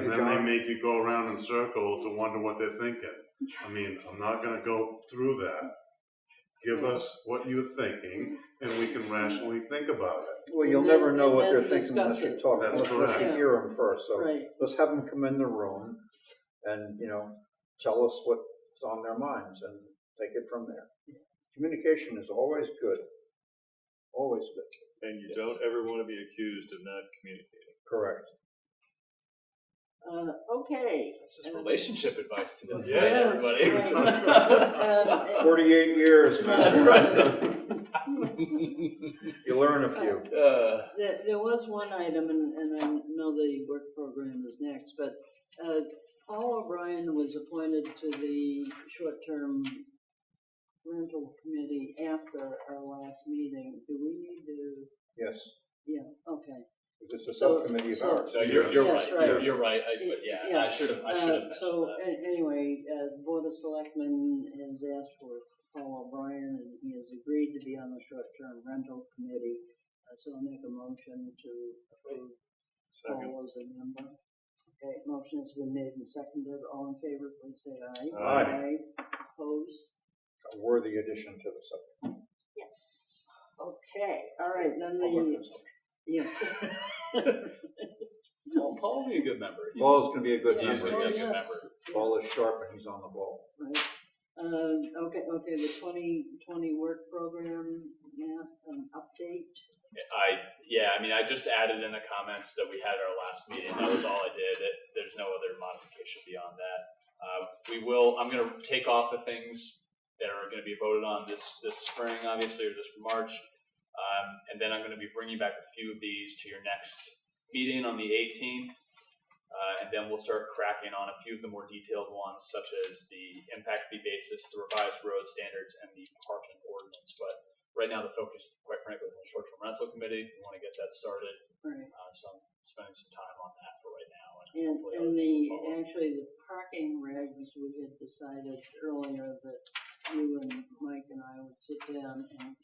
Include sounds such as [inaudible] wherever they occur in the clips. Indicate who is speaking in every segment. Speaker 1: that
Speaker 2: John.
Speaker 1: might make you go around in circles to wonder what they're thinking. I mean, I'm not gonna go through that. Give us what you're thinking, and we can rationally think about it.
Speaker 2: Well, you'll
Speaker 3: And then-
Speaker 2: never know what
Speaker 3: and
Speaker 2: they're
Speaker 3: then
Speaker 2: thinking unless
Speaker 3: discuss
Speaker 2: you
Speaker 3: it.
Speaker 2: talk,
Speaker 1: That's
Speaker 2: unless unless you
Speaker 3: correct.
Speaker 2: hear them first, so
Speaker 3: Right,
Speaker 2: let's have them come in the room and, you know, tell us what's on their minds and take it from there. Communication is always good, always good,
Speaker 4: And you don't ever want to be accused of not communicating.
Speaker 2: correct.
Speaker 3: uh, okay.
Speaker 5: This is relationship advice today,
Speaker 4: Yes.
Speaker 5: everybody.
Speaker 4: [laughs]
Speaker 3: Right. Um,
Speaker 2: Forty-eight
Speaker 3: [laughs]
Speaker 2: years, man.
Speaker 5: That's right.
Speaker 2: You learn a few.
Speaker 5: Uh,
Speaker 3: There, there was one item, and, and I know the work program is next, but, uh, Paul O'Brien was appointed to the short-term rental committee after our last meeting. Do we need to,
Speaker 2: Yes,
Speaker 3: yeah, okay.
Speaker 2: it's a
Speaker 3: So-
Speaker 2: subcommittee of
Speaker 3: so-
Speaker 2: ours.
Speaker 5: no, you're, you're
Speaker 3: Yes,
Speaker 5: right.
Speaker 3: right.
Speaker 5: You're, you're right. I, but yeah,
Speaker 3: Yeah.
Speaker 5: I should have. I should have mentioned
Speaker 3: Uh, So,
Speaker 5: that.
Speaker 3: a- anyway, uh, the Board of Selectmen has asked for Paul O'Brien, and he has agreed to be on the short-term rental committee. Uh, So I'll make a motion to approve
Speaker 4: Second.
Speaker 3: Paul as a member. Okay, motion has been made and seconded. All in favor, please say aye.
Speaker 2: Aye.
Speaker 3: Opposed?
Speaker 2: A worthy addition to the
Speaker 3: Yes. Okay, all right, then
Speaker 2: subcommittee.
Speaker 3: the, yeah. [laughs]
Speaker 5: Paul, Paul would be a good member. He's-
Speaker 2: Paul's gonna be a good
Speaker 5: He's
Speaker 3: Oh,
Speaker 5: gonna be a
Speaker 2: member.
Speaker 5: good
Speaker 3: yes.
Speaker 5: member.
Speaker 2: Paul is sharp and he's on the ball.
Speaker 3: Right. Um, okay, okay, the twenty twenty work program, yeah, an update.
Speaker 5: I yeah. I mean, I just added in the comments that we had at our last meeting. That was all I did. It, there's no other modification beyond that. Uh, we will. I'm gonna take off the things that are gonna be voted on this this spring, obviously, or this March, um, and then I'm gonna be bringing back a few of these to your next meeting on the 18th. Uh, and then we'll start cracking on a few of the more detailed ones, such as the impact fee basis, the revised road standards, and the parking ordinance. But right now, the focus, quite frankly, is on the short-term rental committee. We want to get that started,
Speaker 3: Right.
Speaker 5: uh, so I'm spending some time on that for right now.
Speaker 3: And,
Speaker 5: hopefully
Speaker 3: and the,
Speaker 5: other people follow.
Speaker 3: actually, the parking regs, we had decided earlier that you and Mike and I would sit down and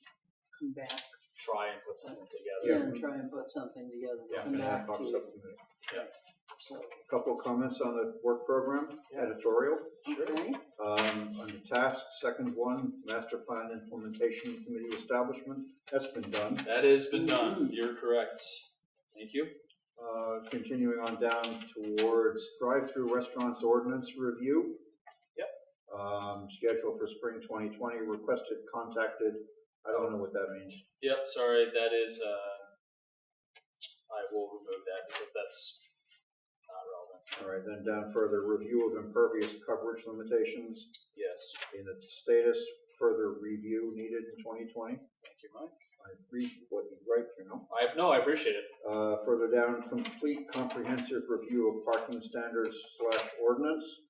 Speaker 3: come back
Speaker 5: try and put something together.
Speaker 3: and try and put something together.
Speaker 5: Yeah,
Speaker 3: Come back to you,
Speaker 2: Subcommittee.
Speaker 3: so,
Speaker 2: Couple comments on the work program, editorial.
Speaker 3: okay,
Speaker 2: Um, on the task, second one, master plan implementation committee establishment, that's been done.
Speaker 5: That has been done. You're correct. Thank you.
Speaker 2: Uh, continuing on down towards drive-through restaurants ordinance review.
Speaker 5: Yep.
Speaker 2: Um, scheduled for spring twenty twenty, requested, contacted, I don't know what that means.
Speaker 5: Yep, sorry, that is, uh, I will remove that because that's not relevant.
Speaker 2: All right, then down further, review of impervious coverage limitations
Speaker 5: Yes,
Speaker 2: in the status, further review needed in twenty twenty.
Speaker 5: thank you, Mike.
Speaker 2: I read what you write, you know.
Speaker 5: I, no, I appreciate it.
Speaker 2: Uh, further down, complete comprehensive review of parking standards slash ordinance.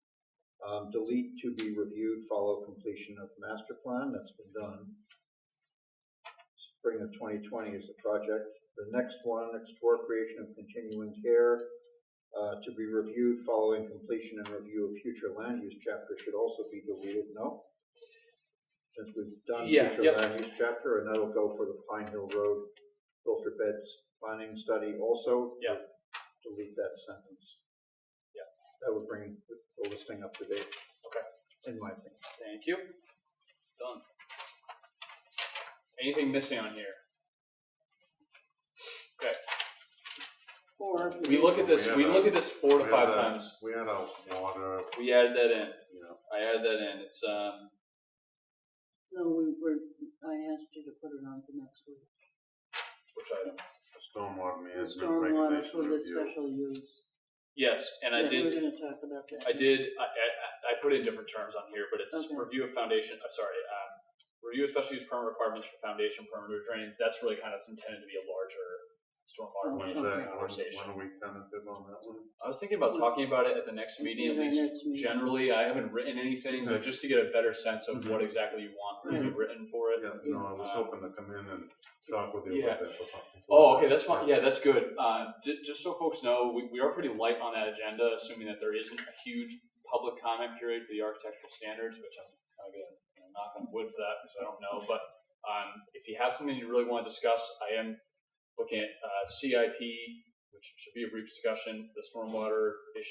Speaker 2: Um, delete to be reviewed, follow completion of master plan, that's been done. Spring of twenty twenty is the project. The next one, explore creation of continuing care, uh, to be reviewed following completion and review of future land use chapter should also be deleted, no? Since we've done
Speaker 5: Yeah,
Speaker 2: future
Speaker 5: yep.
Speaker 2: land use chapter, and that'll go for the Pine Hill Road filter beds planning study also.
Speaker 5: Yeah.
Speaker 2: Delete that sentence.
Speaker 5: Yeah.
Speaker 2: That would bring the listing up to date.
Speaker 5: Okay.
Speaker 2: In my opinion.
Speaker 5: Thank you. Done. Anything missing on here?
Speaker 3: or.
Speaker 5: We look at this, we look at this four to
Speaker 1: We
Speaker 5: five
Speaker 1: had a-
Speaker 5: times.
Speaker 1: We had a water,
Speaker 5: We added that in.
Speaker 1: you know,
Speaker 5: I added that in. It's, um,
Speaker 3: No, we were, I asked you to put it on for next week.
Speaker 5: which item?
Speaker 1: stormwater
Speaker 3: The
Speaker 1: management
Speaker 3: stormwater
Speaker 1: regulation
Speaker 3: for the
Speaker 1: review.
Speaker 3: special use.
Speaker 5: Yes, and I
Speaker 3: Yeah,
Speaker 5: did.
Speaker 3: We're gonna talk about that.
Speaker 5: I did. I, I, I put in different terms on here, but it's
Speaker 3: Okay.
Speaker 5: review of foundation. I'm sorry. Um, review of special use permit requirements for foundation perimeter drains. That's really kind of intended to be a larger stormwater
Speaker 3: Okay.
Speaker 1: When's
Speaker 5: management
Speaker 1: that, when,
Speaker 5: conversation.
Speaker 1: when are we tentative on that one?
Speaker 5: I was thinking about talking about it at the next meeting, at
Speaker 3: Maybe our
Speaker 5: least
Speaker 3: next meeting.
Speaker 5: generally. I haven't written anything, but just to get a better sense of what exactly you want to be written for it.
Speaker 1: Yeah, no, I was hoping to come in and talk with you
Speaker 5: Yeah.
Speaker 1: about that. before-
Speaker 5: Oh, okay, that's fine. Yeah, that's good. Uh, j- just so folks know, we, we are pretty light on that agenda, assuming that there isn't a huge public comment period for the architectural standards, which I'm kind of going to knock on wood for that because I don't know. But um, if you have something you really want to discuss, I am looking at uh, CIP, which should be a brief discussion, the stormwater issue.